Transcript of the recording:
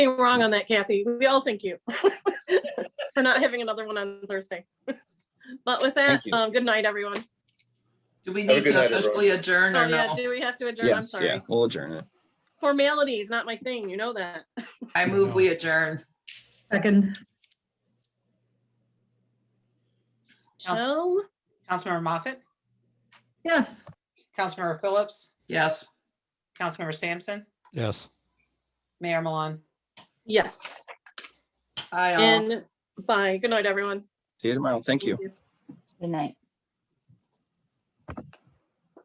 anything wrong on that, Kathy. We all thank you for not having another one on Thursday. But with that, Thank you. um, good night, everyone. Do we Have a need good to night, everyone. officially adjourn Oh, or yeah, no? do we have to adjourn? I'm Yes, yeah, sorry. we'll adjourn it. Formality is not my thing, you know that. I move we adjourn. Second, No. Jill, Councilmember Moffett, yes. Councilmember Phillips, Yes. Councilmember Sampson, Yes. Mayor Milan. yes, Aye. all. and bye. Good night, everyone. See you tomorrow. Thank you. Good night.